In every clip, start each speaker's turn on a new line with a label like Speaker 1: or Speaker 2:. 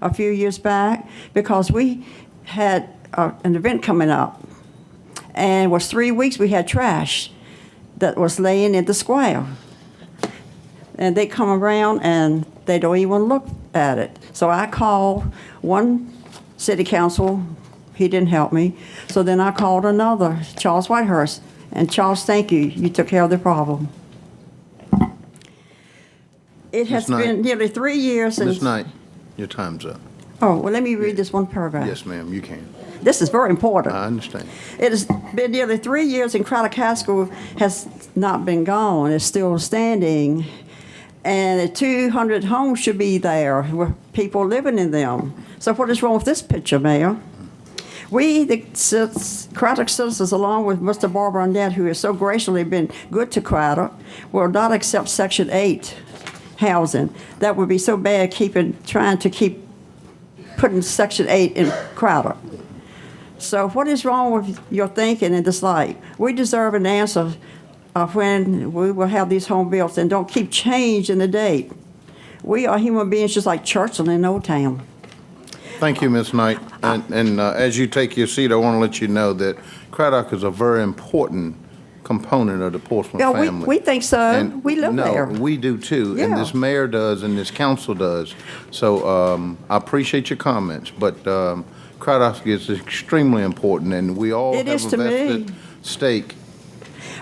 Speaker 1: a few years back because we had uh, an event coming up. And it was three weeks we had trash that was laying in the square. And they come around and they don't even look at it. So I called one city council, he didn't help me. So then I called another, Charles Whitehurst. And Charles, thank you, you took care of the problem. It has
Speaker 2: Knight.
Speaker 1: been nearly three years since.
Speaker 2: Ms. Knight, your time's up.
Speaker 1: Oh, well, let me read this one paragraph.
Speaker 2: Yes, ma'am, you can.
Speaker 1: This is very important.
Speaker 2: I understand.
Speaker 1: It has been nearly three years and Craddock High School has not been gone. It's still standing. And 200 homes should be there with people living in them. So what is wrong with this picture, Mayor? We, the cits- Craddock citizens, along with Mr. Barbara Annette, who has so graciously been good to Craddock, will not accept Section 8 housing. That would be so bad keeping, trying to keep putting Section 8 in Craddock. So what is wrong with your thinking and this light? We deserve an answer of when we will have these home built and don't keep changing the date. We are human beings just like Churchill in Old Town.
Speaker 2: Thank you, Ms. Knight. And, and uh, as you take your seat, I want to let you know that Craddock is a very important component of the Portsmouth
Speaker 1: Yeah, we-
Speaker 2: family.
Speaker 1: we think so.
Speaker 2: And-
Speaker 1: We live there.
Speaker 2: No, we do too. And
Speaker 1: Yeah.
Speaker 2: this mayor does, and this council does. So um, I appreciate your comments, but um, Craddock is extremely important, and we all
Speaker 1: It
Speaker 2: have
Speaker 1: is
Speaker 2: a
Speaker 1: to me.
Speaker 2: vested stake.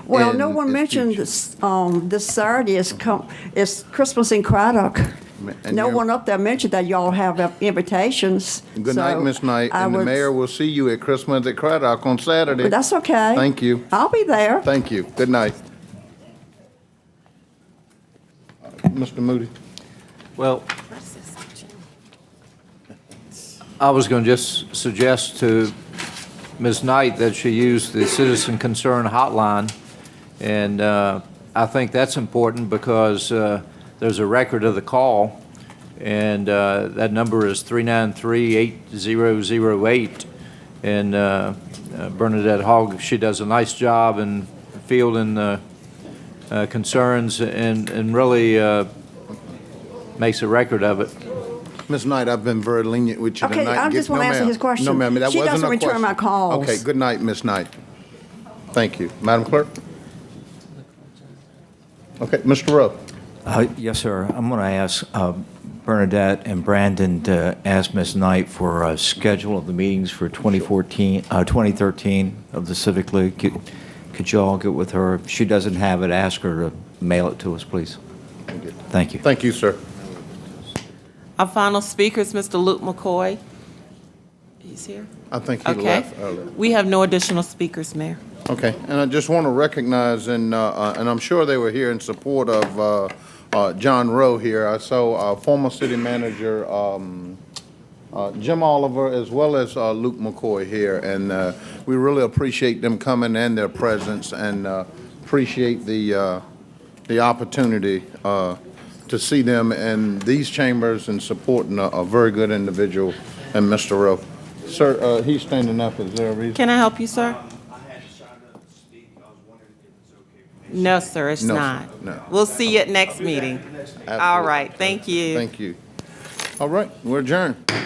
Speaker 1: Well, no
Speaker 2: And
Speaker 1: one
Speaker 2: it's
Speaker 1: mentioned
Speaker 2: future.
Speaker 1: this, um, this Saturday is come, is Christmas in Craddock.
Speaker 2: And
Speaker 1: No
Speaker 2: you're-
Speaker 1: one up there mentioned that y'all have uh, invitations.
Speaker 2: Good night,
Speaker 1: so
Speaker 2: Ms. Knight,
Speaker 1: I
Speaker 2: and the
Speaker 1: would-
Speaker 2: mayor will see you at Christmas at Craddock on Saturday.
Speaker 1: But that's okay.
Speaker 2: Thank you.
Speaker 1: I'll be there.
Speaker 2: Thank you. Good night. Mr. Moody?
Speaker 3: Well, I was going to just suggest to Ms. Knight that she use the citizen concern hotline, and uh, I think that's important because uh, there's a record of the call, and uh, that number is 393-8008, and uh, uh, Bernadette Hogg, she does a nice job in fielding the uh, concerns and and really uh, makes a record of it.
Speaker 2: Ms. Knight, I've been very lenient with you
Speaker 1: Okay,
Speaker 2: tonight.
Speaker 1: I just
Speaker 2: Get-
Speaker 1: wanna
Speaker 2: no,
Speaker 1: answer
Speaker 2: ma'am.
Speaker 1: his question.
Speaker 2: No, ma'am, that
Speaker 1: She
Speaker 2: wasn't a question.
Speaker 1: doesn't return my calls.
Speaker 2: Okay, good night, Ms. Knight. Thank you. Madam Clerk? Okay, Mr. Rowe?
Speaker 4: Uh, Yes, sir. I'm going to ask uh, Bernadette and Brandon to ask Ms. Knight for a schedule of the meetings for 2014, uh, 2013 of the Civic League. Could- Could you all get with her? If she doesn't have it, ask her to mail it to us, please. Thank you.
Speaker 2: Thank you, sir.
Speaker 5: Our final speaker is Mr. Luke McCoy. He's here?
Speaker 2: I think he
Speaker 5: Okay.
Speaker 2: left earlier.
Speaker 5: We have no additional speakers, Mayor.
Speaker 2: Okay, and I just want to recognize, and, uh, uh, and I'm sure they were here in support of uh, uh, John Rowe here. I saw uh, former city manager um, uh, Jim Oliver as well as uh, Luke McCoy here, and uh, we really appreciate them coming and their presence, and uh, appreciate the, uh, the opportunity uh, to see them in these chambers and supporting a- a very good individual and Mr. Rowe. Sir, uh, he's standing up, is there a reason?
Speaker 5: Can I help you, sir?
Speaker 6: I had to sign up to speak, I was wondering if it's okay for me.
Speaker 5: No, sir, it's
Speaker 2: No, sir.
Speaker 5: not.
Speaker 2: No.
Speaker 5: We'll see you at next meeting. All
Speaker 2: Absolutely.
Speaker 5: right, thank you.
Speaker 2: Thank you. All right, we're adjourned.